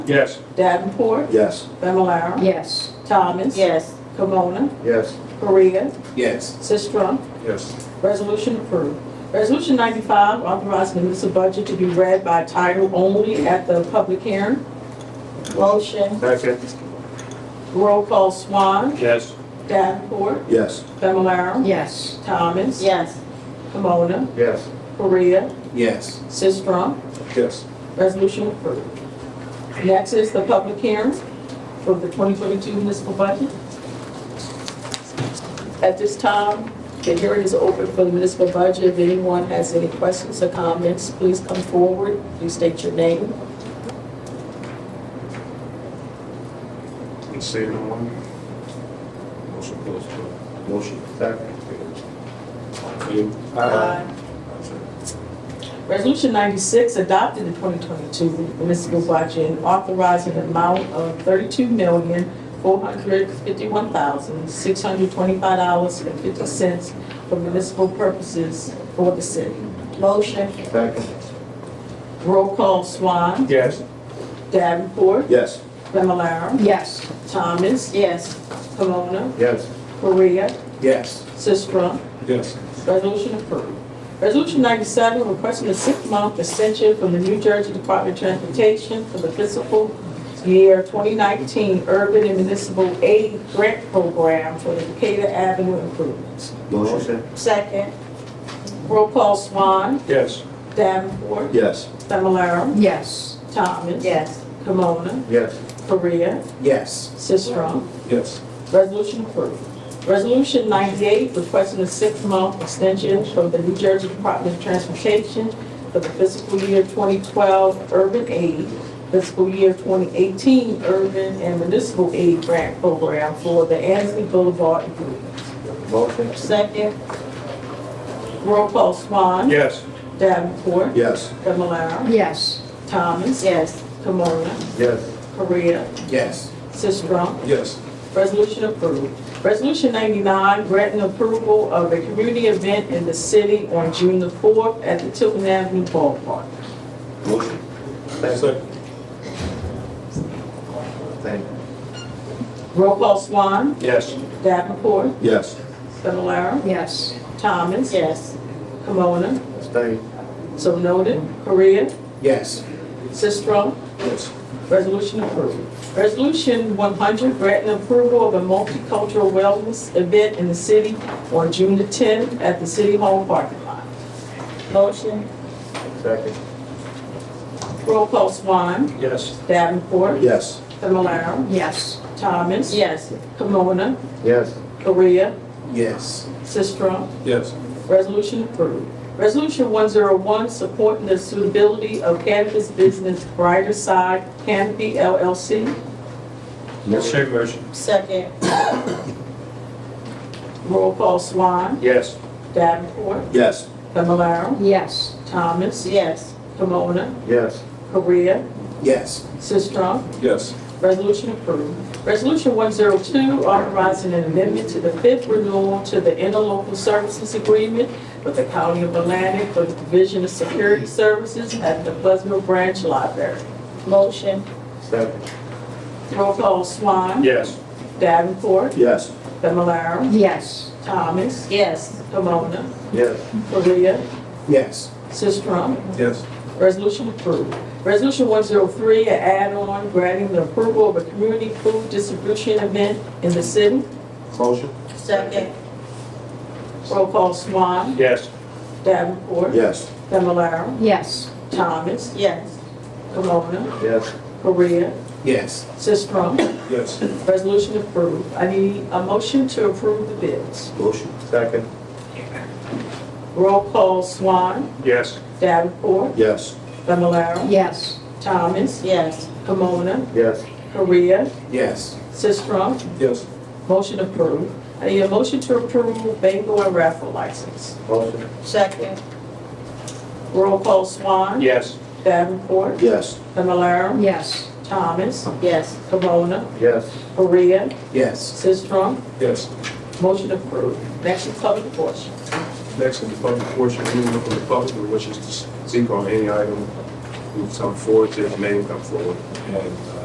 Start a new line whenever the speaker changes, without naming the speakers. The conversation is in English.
Yes.
Davenport,
Yes.
Familar,
Yes.
Thomas.
Yes,
Camona,
Yes.
Korea,
Yes.
Sistrum.
Yes.
Resolution approved. Resolution 95, authorizing the municipal budget to be read by title only at the public hearing.
motion,
Second.
Roll call Swan,
Yes.
Davenport,
Yes.
Familar,
Yes.
Thomas.
yes,
Camona,
Yes.
Korea,
Yes.
Sistrum.
Yes.
Resolution approved. Next is the public hearing for the 2022 municipal budget. At this time, the hearing is open for the municipal budget. If anyone has any questions or comments, please come forward. Please state your name.
Say no one.
Motion closed.
Motion. Second.
Uh, Resolution 96, adopted the 2022 municipal budget, and authorizing an amount of $32,451,625.50 for municipal purposes for the city.
motion,
Second.
Roll call Swan,
Yes.
Davenport,
Yes.
Familar,
Yes.
Thomas,
yes,
Pomona,
Yes.
Korea,
Yes.
Sistrum.
Yes.
Resolution approved. Resolution 97, requesting a six-month extension from the New Jersey Department of Transportation for the fiscal year 2019 Urban and Municipal Aid Grant Program for the Decatur Avenue improvements.
Motion.
second,
Roll call Swan,
Yes.
Davenport,
Yes.
Familar,
Yes.
Thomas,
yes,
Pomona,
Yes.
Korea,
Yes.
Sistrum.
Yes.
Resolution approved. Resolution 98, requesting a six-month extension from the New Jersey Department of Transportation for the fiscal year 2012 Urban Aid, fiscal year 2018 Urban and Municipal Aid Grant Program for the Ansley Boulevard improvements.
Motion.
second,
Roll call Swan.
Yes.
Davenport.
Yes.
Familar.
Yes.
Thomas.
yes,
Camona.
Yes.
Korea.
Yes.
Sistrum.
Yes.
Resolution approved. Resolution 99, granting approval of a community event in the city on June the 4th at the Tilton Avenue Ballpark.
Motion. Second. Thank.
Roll call Swan,
Yes.
Davenport,
Yes.
Familar,
Yes.
Thomas,
yes,
Kimona,
Stay.
so noted, Korea,
Yes.
Sistrum.
Yes.
Resolution approved. Resolution 100, granting approval of a multicultural wellness event in the city on June the 10th at the City Hall parking lot.
motion,
Second.
Roll call Swan,
Yes.
Davenport,
Yes.
Familar,
Yes.
Thomas,
yes,
Kimona,
Yes.
Korea,
Yes.
Sistrum.
Yes.
Resolution approved. Resolution 101, supporting the suitability of cannabis business Brighter Side Canopy LLC.
Same motion.
second,
Roll call Swan,
Yes.
Davenport,
Yes.
Familar,
Yes.
Thomas,
yes,
Pomona,
Yes.
Korea,
Yes.
Sistrum.
Yes.
Resolution approved. Resolution 102, authorizing an amendment to the fifth renewal to the interlocal services agreement with the County of Atlantic for the Division of Security Services at the Buzzell Branch Library.
motion,
Second.
Roll call Swan.
Yes.
Davenport.
Yes.
Familar.
Yes.
Thomas.
yes,
Pomona.
Yes.
Korea.
Yes.
Sistrum.
Yes.
Resolution approved. Resolution 103, an add-on granting the approval of a community food distribution event in the city.
Motion.
second,
Roll call Swan.
Yes.
Davenport.
Yes.
Familar.
Yes.
Thomas.
yes,
Pomona.
Yes.
Korea.
Yes.
Sistrum.
Yes.
Resolution approved. I need a motion to approve the bids.
Motion. Second.
Roll call Swan.
Yes.
Davenport.
Yes.
Familar.
Yes.
Thomas,
yes,
Pomona,
Yes.
Korea,
Yes.
Sistrum.
Yes.
Motion approved. I need a motion to approve bingo and raffle license.
Motion.
second,
Roll call Swan.
Yes.
Davenport.
Yes.
Familar.
Yes.
Thomas.
yes,
Pomona.
Yes.
Korea.
Yes.
Sistrum.
Yes.
Motion approved. Next is public portion.
Next, in the public portion, anyone from the public who wishes to speak on any item
who come forward, there's a name come forward, and uh,